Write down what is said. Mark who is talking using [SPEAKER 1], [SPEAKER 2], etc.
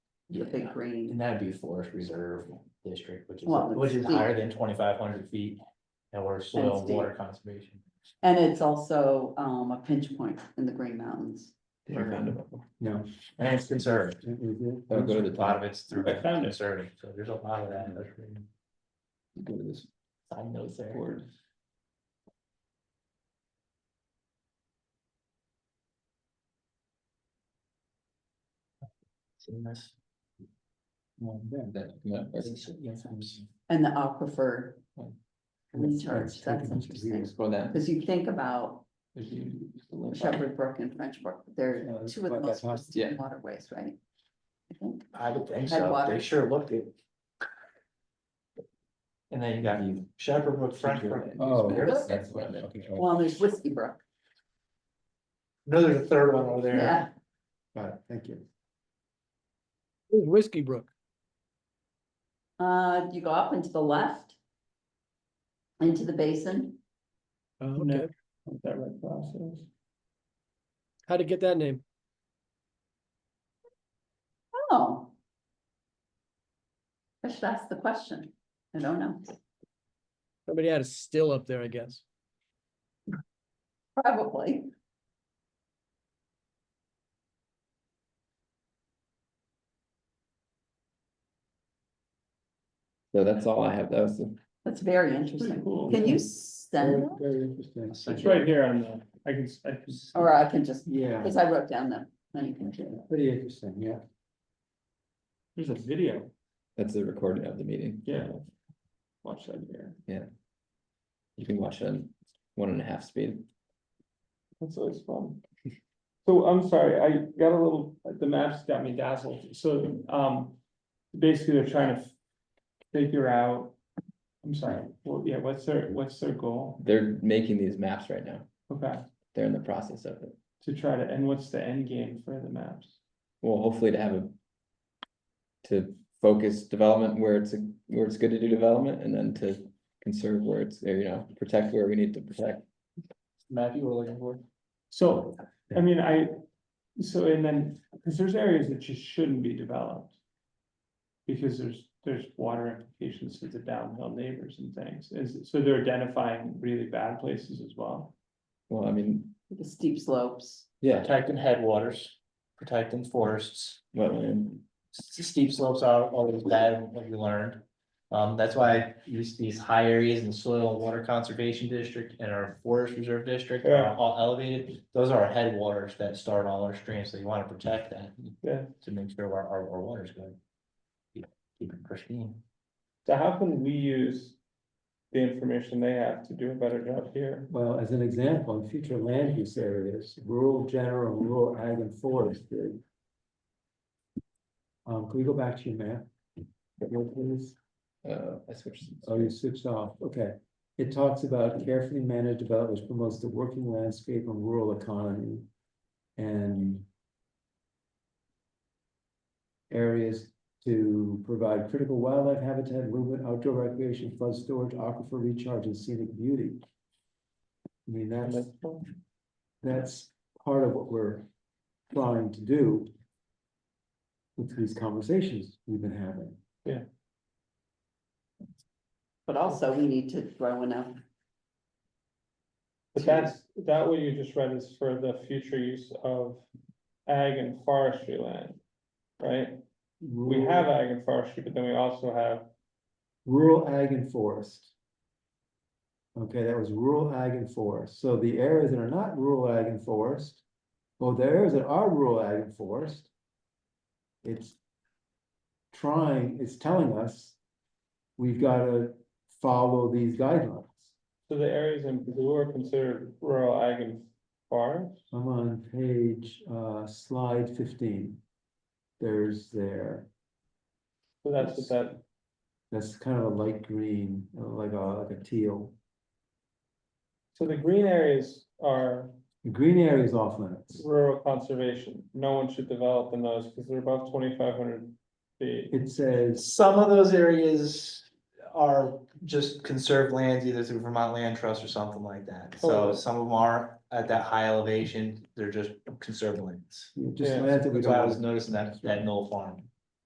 [SPEAKER 1] the big
[SPEAKER 2] Yeah.
[SPEAKER 1] green.
[SPEAKER 2] And that'd be forest reserve district, which is,
[SPEAKER 1] Well,
[SPEAKER 2] which
[SPEAKER 1] it's
[SPEAKER 2] is higher than twenty-five hundred feet. And we're soil and water conservation.
[SPEAKER 1] And it's also, um, a pinch point in the Green Mountains.
[SPEAKER 3] Never found it before.
[SPEAKER 2] No. And it's conserved.
[SPEAKER 3] I'll
[SPEAKER 2] A
[SPEAKER 3] go to the
[SPEAKER 2] lot
[SPEAKER 3] bottom,
[SPEAKER 2] of it's through
[SPEAKER 3] I found it.
[SPEAKER 2] conserving, so there's a lot of that. in those green
[SPEAKER 3] go to this
[SPEAKER 2] Side notes there.
[SPEAKER 3] board.
[SPEAKER 2] Seen this?
[SPEAKER 3] That, yeah, that's-
[SPEAKER 1] And the aquifer
[SPEAKER 3] Right.
[SPEAKER 1] recharge, that's interesting,
[SPEAKER 3] Explore that.
[SPEAKER 1] because you think about
[SPEAKER 3] There's the- the link.
[SPEAKER 1] Shepherd Brook and French Brook, they're
[SPEAKER 3] Yeah,
[SPEAKER 1] two of the
[SPEAKER 3] but
[SPEAKER 1] most
[SPEAKER 3] that's not-
[SPEAKER 1] pristine
[SPEAKER 3] yeah.
[SPEAKER 1] waterways, right? I think,
[SPEAKER 2] I would think
[SPEAKER 1] Had
[SPEAKER 2] so,
[SPEAKER 1] water.
[SPEAKER 2] they sure looked it. And then you got
[SPEAKER 3] You-
[SPEAKER 2] Shepherd Brook, French Brook,
[SPEAKER 3] Oh,
[SPEAKER 2] There's-
[SPEAKER 3] that's what I'm looking for.
[SPEAKER 1] well, there's Whiskey Brook,
[SPEAKER 2] no, there's a third one over
[SPEAKER 1] yeah,
[SPEAKER 2] there,
[SPEAKER 3] Got it, thank you.
[SPEAKER 4] Where's Whiskey Brook?
[SPEAKER 1] uh, you go up and to the left. Into the basin,
[SPEAKER 4] Oh, okay.
[SPEAKER 3] Is that right process?
[SPEAKER 4] How'd it get that name?
[SPEAKER 1] oh. I should ask the question, I don't know,
[SPEAKER 4] Somebody had a still up there, I guess.
[SPEAKER 1] probably,
[SPEAKER 3] So that's all I have, that was the.
[SPEAKER 1] that's very interesting, can you send, that?
[SPEAKER 3] Very interesting.
[SPEAKER 5] It's right here on the, I can, I can,
[SPEAKER 1] or I can just,
[SPEAKER 3] Yeah,
[SPEAKER 1] because I wrote down them, then you can do it.
[SPEAKER 3] pretty interesting, yeah.
[SPEAKER 5] there's a video,
[SPEAKER 3] That's the recording of the meeting.
[SPEAKER 5] yeah. Watch that here.
[SPEAKER 3] You can watch it on one and a half speed.
[SPEAKER 5] That's always fun. So I'm sorry, I got a little, the maps got me dazzled, so, um, basically they're trying to. Figure out, I'm sorry, well, yeah, what's their, what's their goal?
[SPEAKER 3] They're making these maps right now.
[SPEAKER 5] Okay,
[SPEAKER 3] They're in the process of it.
[SPEAKER 5] to try to, and what's the end game for the maps?
[SPEAKER 3] Well, hopefully to have a. To focus development where it's, a- where it's good to do development and then to conserve where it's, or, you know, protect where we need to protect.
[SPEAKER 2] map you were looking for.
[SPEAKER 5] So, I mean, I, so and then, because there's areas that just shouldn't be developed. Because there's, there's water implications to the downhill neighbors and things, is, so they're identifying really bad places as well.
[SPEAKER 3] Well, I mean,
[SPEAKER 1] the steep slopes.
[SPEAKER 3] yeah,
[SPEAKER 2] Protecting headwaters, protecting forests,
[SPEAKER 3] wetland.
[SPEAKER 2] s- steep slopes are always bad, what we learned. Um, that's why I use these high areas in soil and water conservation district and our forest reserve district
[SPEAKER 5] Yeah.
[SPEAKER 2] are all elevated. Those are our headwaters that start all our streams, so you wanna protect that.
[SPEAKER 5] Yeah.
[SPEAKER 2] To make sure our, our, our water's good. Keep keep it pristine.
[SPEAKER 5] So how can we use the information they have to do a better job here?
[SPEAKER 6] Well, as an example, in future land use areas, rural general, rural ag and forestry. Um, can we go back to your map? What is-
[SPEAKER 3] Uh, I switched.
[SPEAKER 6] Oh, you switched off, okay. It talks about carefully managed development which promotes the working landscape and rural economy and areas to provide critical wildlife habitat, movement, outdoor recreation, flood storage, aquifer recharge, and scenic beauty. I mean, that's, that's part of what we're trying to do with these conversations we've been having.
[SPEAKER 1] But also we need to throw in a,
[SPEAKER 5] But that's, that what you just read is for the future use of ag and forestry land, right? We have ag and forestry, but then we also have
[SPEAKER 6] Rural ag and forest. Okay, that was rural ag and forest, so the areas that are not rural ag and forest, well, the areas that are rural ag and forest. It's. Trying, it's telling us. We've gotta follow these guidelines,
[SPEAKER 5] So the areas in blue are considered rural ag and forest?
[SPEAKER 6] I'm on page, uh, slide fifteen. There's there,
[SPEAKER 5] So that's what that,
[SPEAKER 6] that's kind of a light green, uh, like a, like a teal,
[SPEAKER 5] so the green areas are
[SPEAKER 6] The green area is off limits.
[SPEAKER 5] rural conservation. No one should develop in those because they're above twenty-five hundred feet.
[SPEAKER 6] It says
[SPEAKER 2] Some of those areas are just conserved lands, either through Vermont Land Trust or something like that. So
[SPEAKER 5] Oh.
[SPEAKER 2] some of them are at that high elevation, they're just conserved lands.
[SPEAKER 6] You know, Just
[SPEAKER 5] Yeah,
[SPEAKER 6] land that we
[SPEAKER 2] That's
[SPEAKER 6] don't
[SPEAKER 2] why I
[SPEAKER 6] want
[SPEAKER 2] was noticing that, that Knoll Farm.